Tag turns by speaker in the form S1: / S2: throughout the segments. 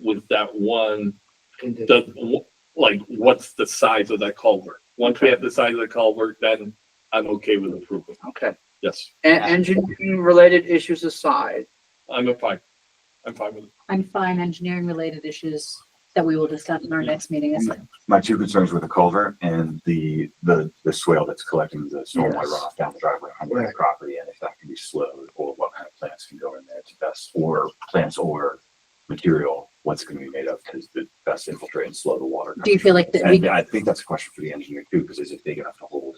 S1: with that one,
S2: condition.
S1: the, like, what's the size of that culvert? Once we have the size of the culvert, then I'm okay with approval.
S2: Okay,
S1: Yes,
S2: and engineering related issues aside,
S1: I'm fine. I'm fine with it.
S3: I'm fine, engineering related issues that we will discuss in our next meeting is
S4: My two concerns were the culvert and the, the, the swale that's collecting the stormwater
S2: Yes.
S4: runoff down the driveway on the
S2: Right.
S4: property, and if that can be slowed, or what kind of plants can go in there to best, or plants or material, what's gonna be made of, because the best infiltrate and slow the water.
S3: do you feel like that we,
S4: And I think that's a question for the engineer too, because is it big enough to hold?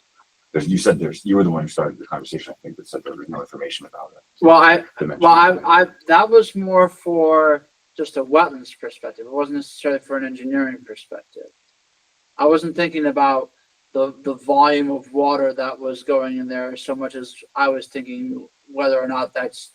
S4: Because you said there's, you were the one who started the conversation, I think, that said there was no information about it.
S2: well, I,
S4: Dimension.
S2: well, I, I, that was more for just a wetlands perspective. It wasn't necessarily for an engineering perspective. I wasn't thinking about the, the volume of water that was going in there so much as I was thinking whether or not that's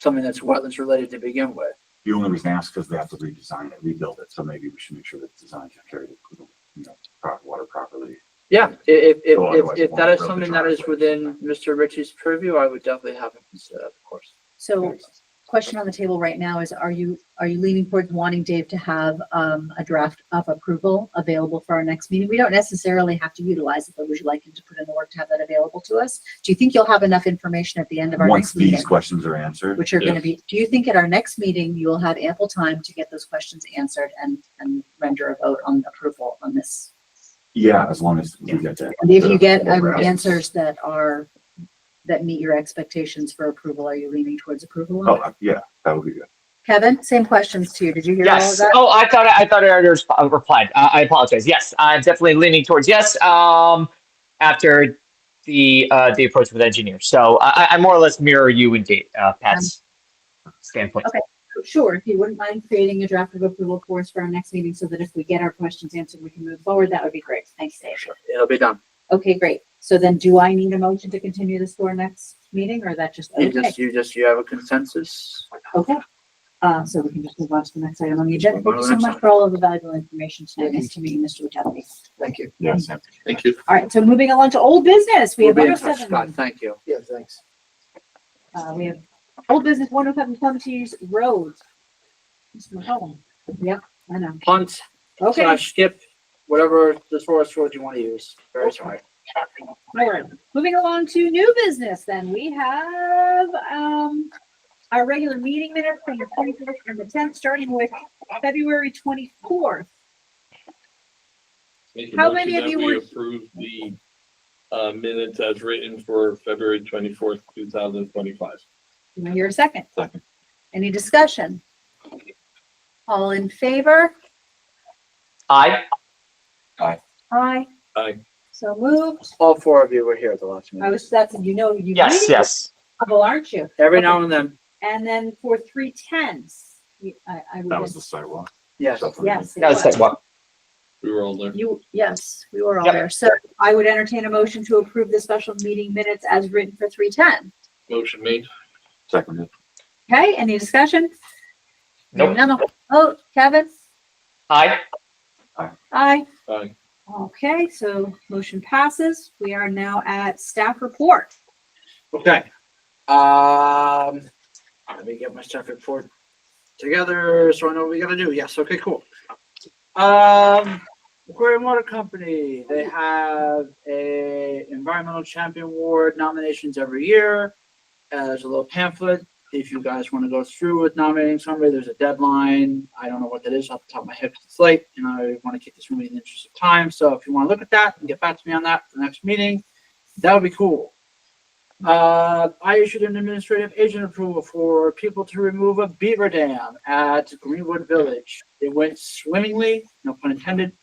S2: something that's wetlands related to begin with.
S4: The only reason I ask is they have to redesign it, rebuild it, so maybe we should make sure that the design can carry the, you know, pro- water properly.
S2: Yeah, i- if, if,
S4: So
S2: if,
S4: otherwise
S2: if
S4: it
S2: that
S4: won't
S2: is
S4: grow the
S2: something that is
S4: driveway.
S2: within Mr. Ritchie's purview, I would definitely have him consider that, of course.
S3: so question on the table right now is, are you, are you leaning towards wanting Dave to have, um, a draft of approval available for our next meeting? We don't necessarily have to utilize it, but would you like him to put in the work to have that available to us? Do you think you'll have enough information at the end of our
S4: Once
S3: next meeting?
S4: these questions are answered,
S3: Which are gonna be, do you think at our next meeting, you will have ample time to get those questions answered and, and render a vote on approval on this?
S4: yeah, as long as we get that.
S3: And if you get um,
S4: Right.
S3: answers that are, that meet your expectations for approval, are you leaning towards approval?
S4: Oh,
S3: on it?
S4: uh, yeah, that would be good.
S3: Kevin, same questions to you. Did you hear all of
S5: Yes.
S3: that?
S5: Oh, I thought I thought I already resp- uh, replied. Uh, I apologize. Yes, I'm definitely leaning towards yes. Um, after the uh, the approach with engineer, so I, I- I more or less mirror you and Dave, uh, Pat's standpoint.
S3: Um, okay. Oh, Sure, if you wouldn't mind creating a draft of approval for us for our next meeting so that if we get our questions answered, we can move forward, that would be great. Thanks, Dave.
S2: It'll be done.
S3: Okay, great. So then do I need a motion to continue this to our next meeting or is that just?
S2: You
S3: okay?
S2: just, you just, you have a consensus?
S3: Okay. Uh, so we can just move on to the next item on the agenda. Thank you so
S2: Alright.
S3: much for all of the valuable information tonight. Nice to meet you, Mr. Witowski.
S2: Thank you.
S4: Yes.
S1: Thank you.
S3: All right, so moving along to old business, we
S2: We'll
S3: have
S2: be in
S3: number
S2: touch, Scott.
S3: seven.
S2: Thank you.
S6: Yeah, thanks.
S3: Uh, we have old business one oh seven Plum Tees Road. Mr. McCollum. Yep, I know.
S2: Punt
S3: Okay,
S2: slash skip, whatever the source word you want to use. Very sorry.
S3: all right. Moving along to new business then, we have, um, our regular meeting minutes from the twenty-fifth and the tenth, starting with February twenty-fourth.
S1: Make a
S3: How many
S1: motion
S3: of you
S1: that we
S3: were-
S1: Approve the, uh, minutes as written for February twenty-fourth, two thousand twenty-five.
S3: Do I hear a second?
S4: Second.
S3: Any discussion? All in favor?
S5: I
S3: Aye.
S1: Aye.
S3: So moved.
S2: All four of you were here at the last
S3: I
S2: meeting.
S3: was, that's, you know, you.
S5: yes yes.
S3: Double, aren't you?
S2: Every now and then,
S3: And then for three tens, you- I, I
S4: That
S3: was,
S4: was the sidewalk.
S2: yes.
S3: yes. it
S5: No, it's
S3: was.
S5: like, well,
S1: We were all there.
S3: You, yes, we were all
S5: Yep.
S3: there. So I would entertain a motion to approve the special meeting minutes as written for three ten.
S1: Motion made.
S4: Seconded.
S3: Okay, any discussion?
S5: Nope.
S3: None. Oh, Kevin?
S5: I
S3: Aye.
S1: Aye.
S3: Okay, so motion passes. We are now at staff report.
S2: Okay. Um, let me get my stuff report together so I know what we gotta do. Yes, okay, cool. Um, Aquarium Water Company, they have a environmental champion award nominations every year. Uh, there's a little pamphlet. If you guys want to go through with nominating somebody, there's a deadline. I don't know what that is off the top of my head. 'cause It's late and I want to keep this moving in the interest of time. So if you want to look at that and get back to me on that for the next meeting, that would be cool. Uh, I issued an administrative agent approval for people to remove a beaver dam at Greenwood Village. It went swimmingly, no pun intended,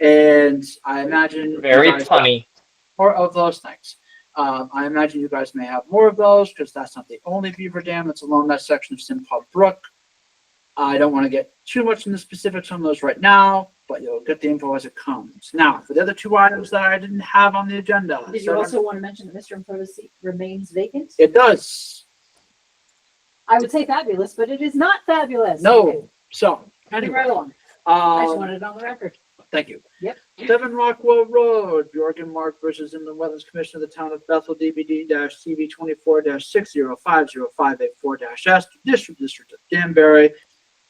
S2: and I imagine. you
S5: very
S2: guys-
S5: funny.
S2: More of those things. Um, I imagine you guys may have more of those because that's not the only beaver dam that's along that section of Simpaw Brook. I don't want to get too much into specifics on those right now, but you'll get the info as it comes. Now, for the other two items that I didn't have on the agenda.
S3: Did you
S2: seven-
S3: also want to mention that Mr. Improvo's seat remains vacant?
S2: It does.
S3: I would say fabulous, but it is not fabulous.
S2: No. So
S3: Moving right
S2: anyway,
S3: along. I just
S2: um,
S3: wanted it on the record.
S2: thank you.
S3: Yep.
S2: Seven Rockwell Road, Bjork and Mark versus Inland Wetlands Commission of the Town of Bethel, DBD dash CB twenty-four dash six zero five zero five eight four dash S, District District of Danbury,